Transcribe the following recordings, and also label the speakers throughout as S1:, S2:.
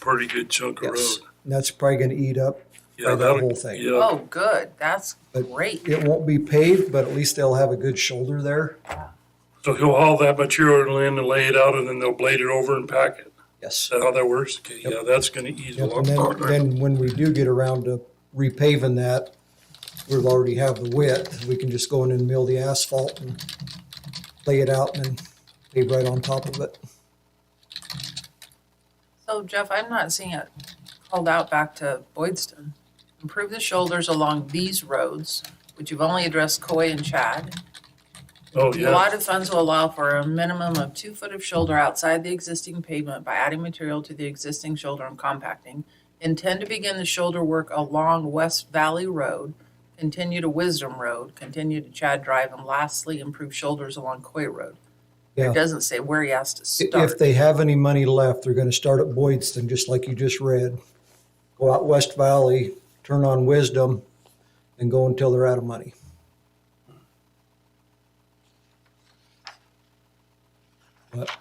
S1: pretty good chunk of road.
S2: Yes, and that's probably gonna eat up,
S1: Yeah,
S2: Or the
S1: that'll-
S2: whole thing.
S1: Yeah,
S3: Oh, good, that's
S2: But-
S3: great.
S2: it won't be paved, but at least they'll have a good shoulder there.
S1: so he'll haul that material in and lay it out and then they'll blade it over and pack it. Is
S2: Yes.
S1: that how that works? Okay, yeah, that's gonna ease a
S2: Yep,
S1: lot.
S2: And then,
S1: farther.
S2: then when we do get around to repaving that, we'll already have the width, we can just go in and mill the asphalt and lay it out and then pave right on top of it.
S3: So Jeff, I'm not seeing it called out back to Boydston. Improve the shoulders along these roads, which you've only addressed Coy and Chad.
S1: Oh,
S3: The
S1: yeah,
S3: lot of funds will allow for a minimum of two foot of shoulder outside the existing pavement by adding material to the existing shoulder and compacting. Intend to begin the shoulder work along West Valley Road, continue to Wisdom Road, continue to Chad Drive, and lastly, improve shoulders along Coy Road.
S2: Yeah.
S3: It doesn't say where he has to
S2: I-
S3: start.
S2: If they have any money left, they're gonna start at Boydston, just like you just read. Go out West Valley, turn on Wisdom, and go until they're out of money.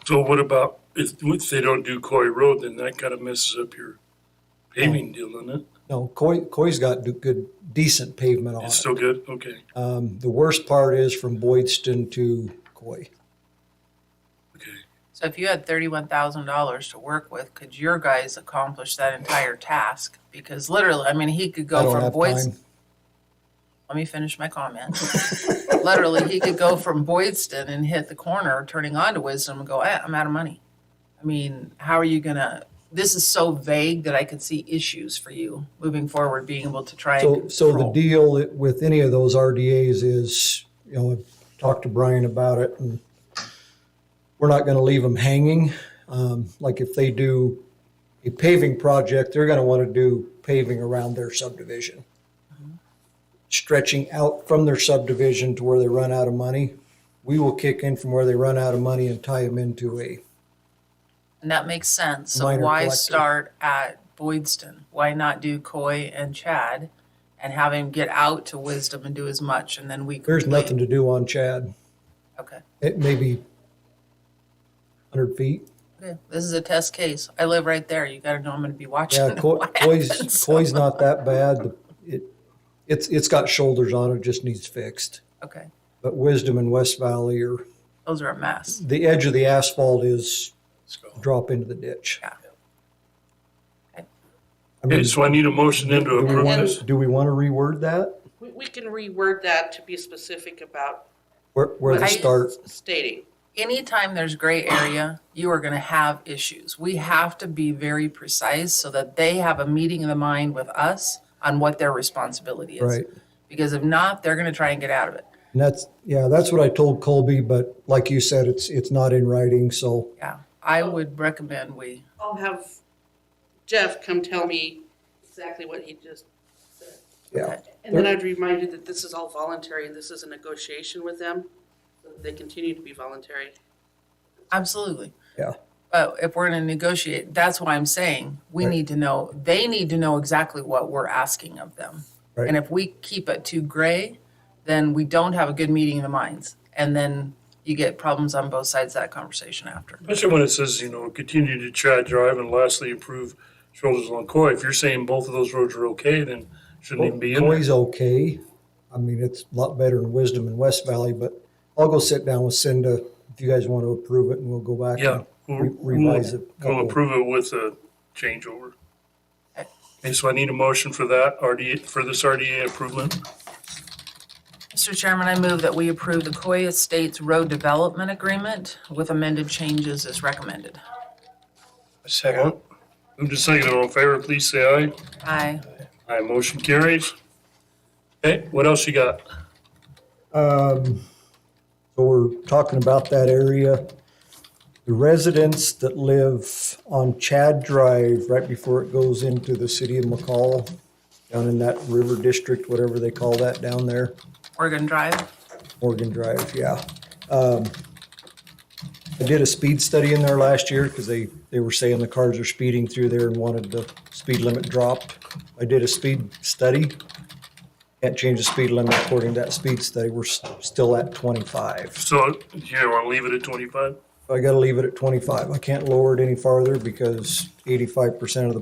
S1: so what about, if, if they don't do Coy Road, then that kinda messes up your paving deal, doesn't it?
S2: No, Coy, Coy's got d- good, decent pavement on
S1: It's
S2: it.
S1: still good, okay,
S2: Um, the worst part is from Boydston to Coy.
S1: okay.
S3: So if you had thirty-one thousand dollars to work with, could your guys accomplish that entire task? Because literally, I mean, he could
S2: I
S3: go
S2: don't
S3: from
S2: have
S3: Boydston.
S2: time.
S3: let me finish my comment. Literally, he could go from Boydston and hit the corner, turning onto Wisdom, and go, eh, I'm out of money. I mean, how are you gonna? This is so vague that I could see issues for you moving forward, being able to try
S2: So,
S3: and
S2: so the
S3: control.
S2: deal with any of those RDAs is, you know, I've talked to Brian about it and we're not gonna leave them hanging. Um, like if they do a paving project, they're gonna wanna do paving around their subdivision. Stretching out from their subdivision to where they run out of money. We will kick in from where they run out of money and tie them into a,
S3: and that makes sense. So
S2: Minor
S3: why
S2: collector.
S3: start at Boydston? Why not do Coy and Chad, and have him get out to Wisdom and do as much, and then we
S2: there's
S3: complain?
S2: nothing to do on Chad.
S3: Okay.
S2: It may be hundred feet.
S3: Okay. This is a test case. I live right there. You got to know I'm going to be watching.
S2: Yeah, Coy,
S3: what happens.
S2: Coy's, Coy's not that bad. The- It, it's, it's got shoulders on it, just needs fixed.
S3: Okay.
S2: But Wisdom and West Valley are,
S3: Those are a mess.
S2: the edge of the asphalt is
S1: Let's go.
S2: drop into the ditch.
S3: Yeah.
S2: I
S1: Okay,
S2: mean,
S1: so I need a motion then to
S2: do we
S1: approve
S2: want,
S1: this.
S2: to do we want to reword that?
S4: We, we can reword that to be specific about
S2: Where, where
S4: what
S2: they
S3: I-
S4: he's
S2: start?
S4: stating.
S3: Anytime there's gray area, you are going to have issues. We have to be very precise so that they have a meeting of the mind with us on what their responsibility is.
S2: Right.
S3: Because if not, they're going to try and get out of it.
S2: And that's, yeah, that's what I told Colby, but like you said, it's, it's not in writing, so
S3: Yeah. I would recommend we,
S4: I'll have Jeff come tell me exactly what he just,
S2: yeah.
S4: and then I'd remind you that this is all voluntary, and this is a negotiation with them. so that They continue to be voluntary.
S3: absolutely.
S2: Yeah.
S3: But if we're going to negotiate, that's why I'm saying we
S2: Right.
S3: need to know, they need to know exactly what we're asking of them.
S2: Right.
S3: And if we keep it too gray, then we don't have a good meeting of the minds. And then you get problems on both sides of that conversation after.
S1: Especially when it says, you know, continue to Chad Drive and lastly improve shoulders along Coy. If you're saying both of those roads are okay, then shouldn't even be in there.
S2: Coy's okay. I mean, it's a lot better than Wisdom and West Valley, but I'll go sit down with Cinda if you guys want to approve it and we'll go back. and-
S1: Yeah, we'll,
S2: Re- revise
S1: we'll
S2: it.
S1: we'll approve it with a changeover. Okay, so I need a motion for that RDA, for this RDA approval.
S3: Mr. Chairman, I move that we approve the Coy Estates Road Development Agreement with amended changes as recommended.
S1: Second. Move to second, all in favor, please say aye.
S3: Aye.
S1: Aye, motion carries. Okay, what else you got?
S2: Um, so we're talking about that area. The residents that live on Chad Drive, right before it goes into the city of McCall, down in that river district, whatever they call that down there.
S3: Oregon Drive.
S2: Morgan Drive, yeah. Um, I did a speed study in there last year because they, they were saying the cars are speeding through there and wanted the speed limit dropped. I did a speed study. Can't change the speed limit according to that speed study. We're s- still at twenty-five.
S1: So, you want to leave it at twenty-five?
S2: I gotta leave it at twenty-five. I can't lower it any farther because eighty-five percent of the